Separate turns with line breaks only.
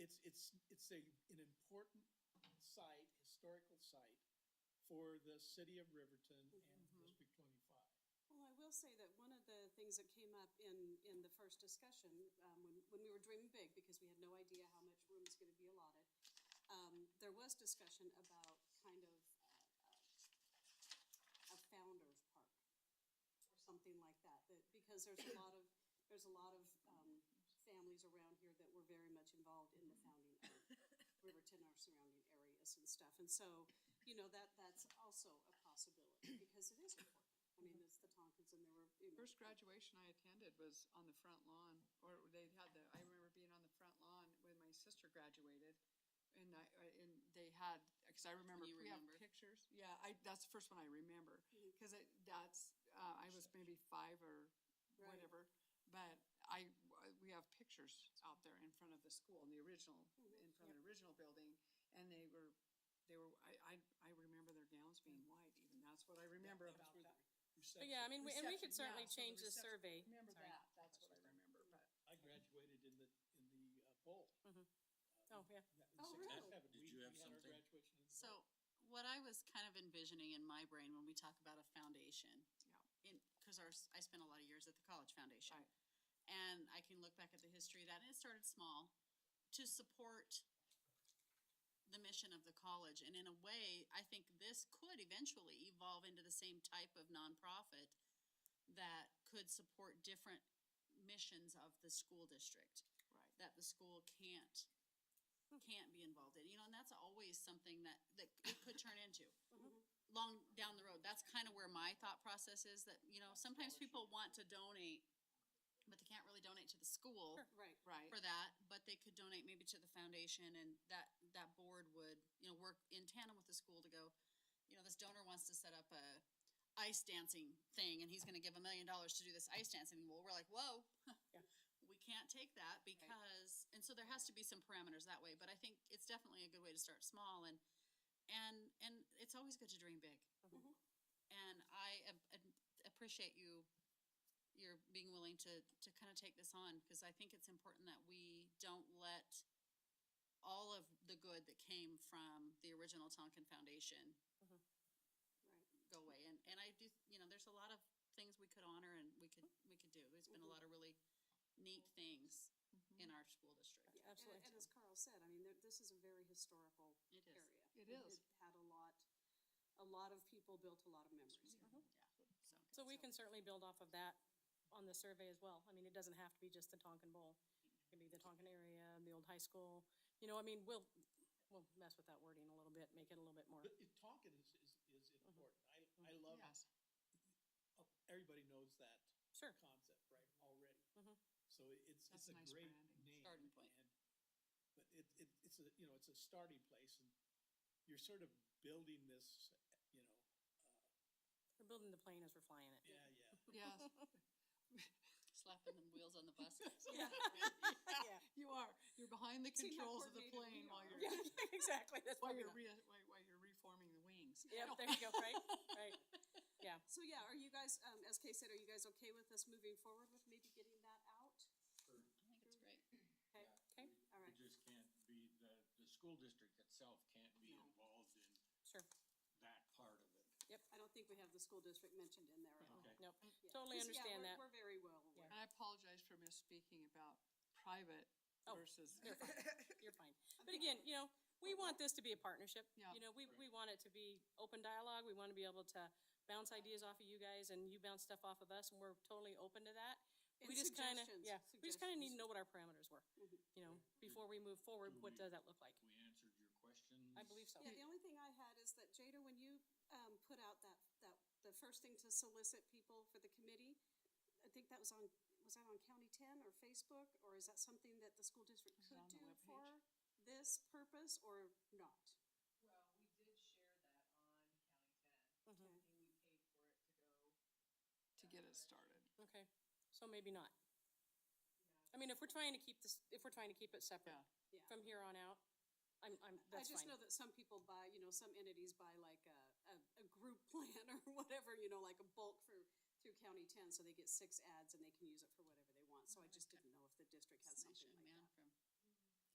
it's, it's, it's a, an important site, historical site for the city of Riverton and
Mm-hmm.
District twenty-five.
Well, I will say that one of the things that came up in, in the first discussion, um, when, when we were dreaming big, because we had no idea how much room is gonna be allotted, um, there was discussion about kind of, uh, uh, a founder's park or something like that, that, because there's a lot of, there's a lot of, um, families around here that were very much involved in the founding of
Mm-hmm.
Riverton, our surrounding areas and stuff, and so, you know, that, that's also a possibility, because it is important. I mean, it's the Tonkins and there were, you know.
First graduation I attended was on the front lawn, or they had the, I remember being on the front lawn when my sister graduated. And I, I- and they had, cause I remember,
you
we have
remember.
pictures, yeah, I, that's the first one I remember, cause it, that's, uh, I was maybe five or
Right.
whatever. But I, uh, we have pictures out there in front of the school, in the original, in
Mm-hmm.
front of the original building, and they were, they were, I, I, I remember their gowns being white, even, that's what I remember
That was
about
where the
that.
reception-
Oh, yeah, I mean, we- and we could
Reception,
certainly
yeah, so the
change the
reception-
survey.
Remember
Sorry.
that, that's what I remember, but.
I graduated in the, in the uh, bowl.
Oh, yeah.
That- in
Oh, really?
67,
Did
we-
you have
we had our
something?
Graduation in the bowl.
So what I was kind of envisioning in my brain when we talk about a foundation.
Yeah.
In, cause our, s- I spent a lot of years at the college foundation.
Right.
And I can look back at the history of that, and it started small, to support the mission of the college. And in a way, I think this could eventually evolve into the same type of nonprofit that could support different missions of the school district
Right.
that the school can't, can't be involved in, you know, and that's always something that, that it could turn into.
Mm-hmm.
Long down the road, that's kind of where my thought process is, that, you know, sometimes people want to donate, but they can't really donate to the school
Right.
Right.
for that, but they could donate maybe to the foundation and that, that board would, you know, work in tandem with the school to go, you know, this donor wants to set up a ice dancing thing and he's gonna give a million dollars to do this ice dancing. Well, we're like, whoa. We can't take that because, and so there has to be some parameters that way, but I think it's definitely a good way to start small and, and, and it's always good to dream big. And I am- am- appreciate you you're being willing to, to kind of take this on, because I think it's important that we don't let all of the good that came from the original Tonkin Foundation
Right.
go away. And, and I do, you know, there's a lot of things we could honor and we could, we could do. There's
Mm-hmm.
been a lot of really neat things in our school district.
Yeah, and-
absolutely.
And as Carl said, I mean, there, this is a very historical
It is.
area.
It is.
Had a lot, a lot of people built a lot of memories. Uh-huh. here.
Mm-hmm. So we can certainly build off of that on the survey as well. I mean, it doesn't have to be just the Tonkin Bowl. It could be the Tonkin area, the old high school. You know, I mean, we'll, we'll mess with that wording a little bit, make it a little bit more.
But it- Tonkin is, is, is
Mm-hmm.
important. I, I love,
Yes.
oh, everybody knows that
Mm-hmm.
Sure.
concept, right, already. So it- it's,
That's
it's a
nice
great
branding.
name.
Starting point.
and- But it, it, it's a, you know, it's a starting place and you're sort of building this, you know,
We're building the plane as we're flying it.
yeah, yeah.
Yes,
Slapping the wheels on the bus.
Yeah. Yeah,
you are. You're behind the
See how
controls of the
coordinated we
plane while
are.
you're,
yeah, exactly. That's
while
what we're
you're
not.
re, while, while you're reforming the wings.
Yep, there you go, right, right. Yeah,
So yeah, are you guys, um, as Kay said, are you guys okay with us moving forward with maybe getting that out?
I think it's great.
Okay,
okay,
all right.
It just can't be, the, the school district itself can't be involved in
sure.
that part of it.
I don't think we have the school district mentioned in there at all.
Nope,
Okay.
Yeah.
totally
'Cause, yeah,
understand
we're-
that.
We're very well aware.
And I apologize for misspeaking about private
Oh,
versus.
You're fine, you're fine. But again, you know, we want this to be a partnership.
Yeah.
You know, we, we want it to be open dialogue. We want to be able to bounce ideas off of you guys and you bounce stuff off of us and we're totally open to that. We
And
just kind of,
suggestions,
yeah, we just kind of need to
suggestions. Mm-hmm.
know what our parameters were, you know, before we move forward, what does that look like?
We answered your questions.
I believe so.
Yeah, the only thing I had is that Jada, when you, um, put out that, that, the first thing to solicit people for the committee, I think that was on, was that on County Ten or Facebook, or is that something that the school district
it
could
on the
do
webpage?
for this purpose or not?
Well, we did share that on County Ten.
Mm-hmm.
I think we paid for it to go.
To get it started.
Okay, so maybe not. I mean, if we're trying to keep this, if we're trying to keep it separate
Yeah.
Yeah.
from here on out, I'm, I'm,
I
that's
just
fine.
know that some people buy, you know, some entities buy like a, a, a group plan or whatever, you know, like a bulk for, through County Ten, so they get six ads and they can use it for whatever they want, so I just didn't know if the district had something like
Man
that.
from